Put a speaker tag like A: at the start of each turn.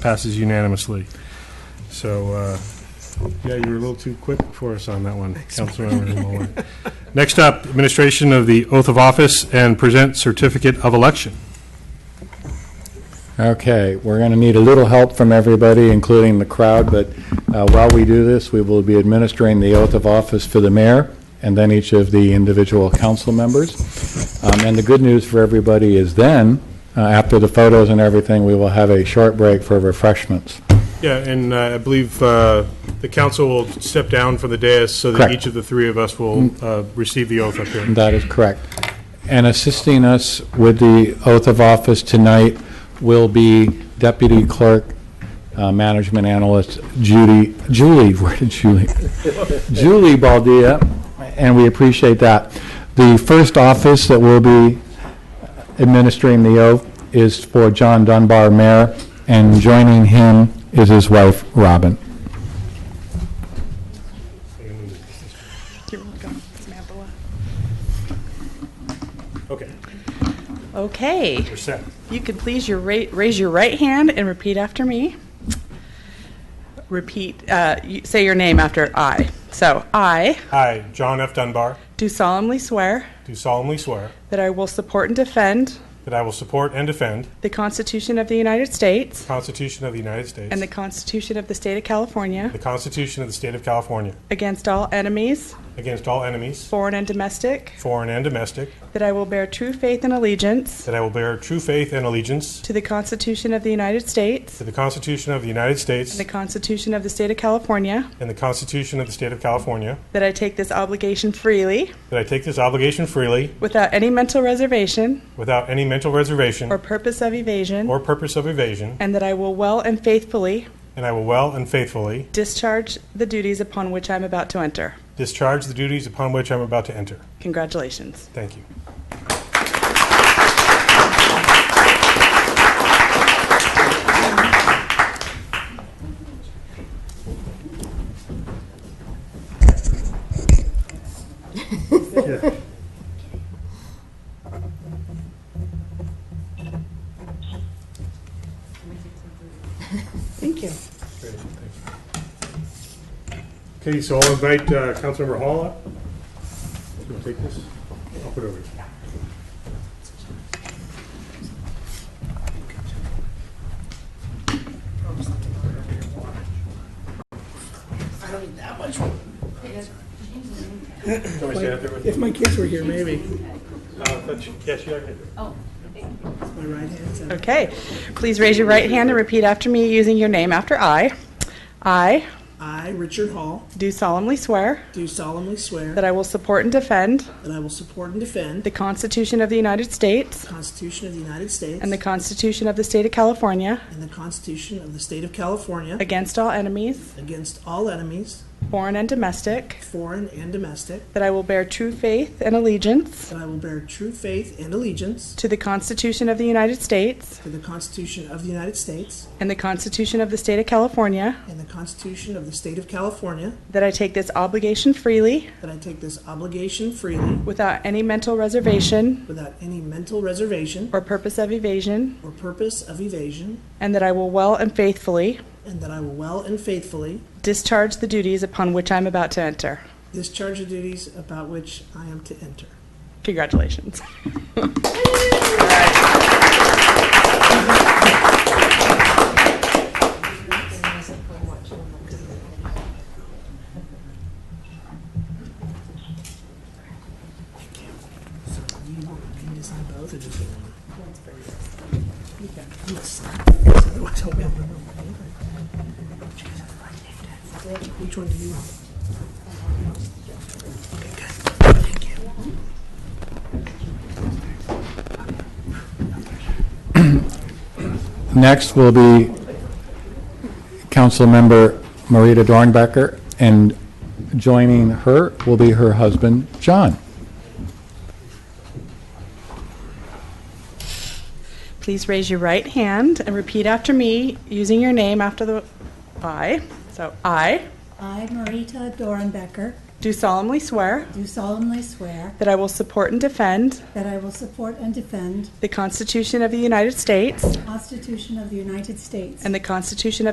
A: Passes unanimously. So, uh, yeah, you were a little too quick for us on that one, Councilmember Muller. Next up, administration of the oath of office and present certificate of election.
B: Okay, we're going to need a little help from everybody, including the crowd, but uh, while we do this, we will be administering the oath of office for the mayor and then each of the individual council members. Um, And the good news for everybody is then, uh, after the photos and everything, we will have a short break for refreshments.
A: Yeah, and uh, I believe uh, the council will step down from the dais so that
B: Correct.
A: each of the three of us will uh, receive the oath up here.
B: That is correct. And assisting us with the oath of office tonight will be Deputy Clerk, uh, Management Analyst Judy, Julie, where did Julie? Julie Baldia, and we appreciate that. The first office that will be administering the oath is for John Dunbar, Mayor, and joining him is his wife, Robin.
C: You're welcome, Samantha.
A: Okay,
C: Okay,
A: we're set.
C: you can please your, ra- raise your right hand and repeat after me. Repeat, uh, you- say your name after I. So, I
A: Hi, John F. Dunbar,
C: do solemnly swear
A: do solemnly swear
C: that I will support and defend
A: that I will support and defend
C: the Constitution of the United States
A: the Constitution of the United States
C: and the Constitution of the State of California
A: the Constitution of the State of California
C: against all enemies,
A: against all enemies,
C: foreign and domestic,
A: foreign and domestic,
C: that I will bear true faith and allegiance
A: That I will bear true faith and allegiance
C: to the Constitution of the United States
A: to the Constitution of the United States
C: and the Constitution of the State of California,
A: and the Constitution of the State of California.
C: that I take this obligation freely
A: That I take this obligation freely,
C: Without any mental reservation
A: without any mental reservation
C: or purpose of evasion.
A: or purpose of evasion,
C: And that I will well and faithfully
A: and I will well and faithfully
C: discharge the duties upon which I'm about to enter.
A: discharge the duties upon which I am about to enter.
C: Congratulations.
A: Thank you.
D: Thank you.
A: Okay, so I'll invite uh, Councilmember Hall up. You want to take this? I'll put it over here. I don't need that much. Want me to stand up there with you?
D: If my kids were here, maybe.
A: Uh, that's- Yes, you are.
D: My right hand's up.
C: Okay. Please raise your right hand and repeat after me using your name after I. I
D: I, Richard Hall,
C: do solemnly swear
D: do solemnly swear
C: that I will support and defend
D: that I will support and defend
C: the Constitution of the United States
D: the Constitution of the United States
C: and the Constitution of the State of California
D: and the Constitution of the State of California
C: against all enemies,
D: against all enemies,
C: foreign and domestic,
D: foreign and domestic,
C: that I will bear true faith and allegiance
D: that I will bear true faith and allegiance
C: to the Constitution of the United States
D: to the Constitution of the United States
C: And the Constitution of the State of California.
D: and the Constitution of the State of California,
C: That I take this obligation freely,
D: that I take this obligation freely
C: without any mental reservation
D: without any mental reservation
C: or purpose of evasion.
D: or purpose of evasion,
C: And that I will well and faithfully
D: and that I will well and faithfully
C: discharge the duties upon which I am about to enter.
D: discharge the duties about which I am to enter.
C: Congratulations.
D: So you want me to sign both or just the one? Okay, I'm gonna sign this, otherwise I'll be able to remember my paper. Jesus, I named it. Which one do you want? Okay, good. Thank you.
B: Next will be Councilmember Marita Dornbecker, and joining her will be her husband, John.
C: Please raise your right hand and repeat after me using your name after the I. So I
E: I, Marita Dorenbecker,
C: do solemnly swear
E: do solemnly swear
C: that I will support and defend
E: that I will support and defend
C: the Constitution of the United States
E: the Constitution of the United States
C: and the Constitution of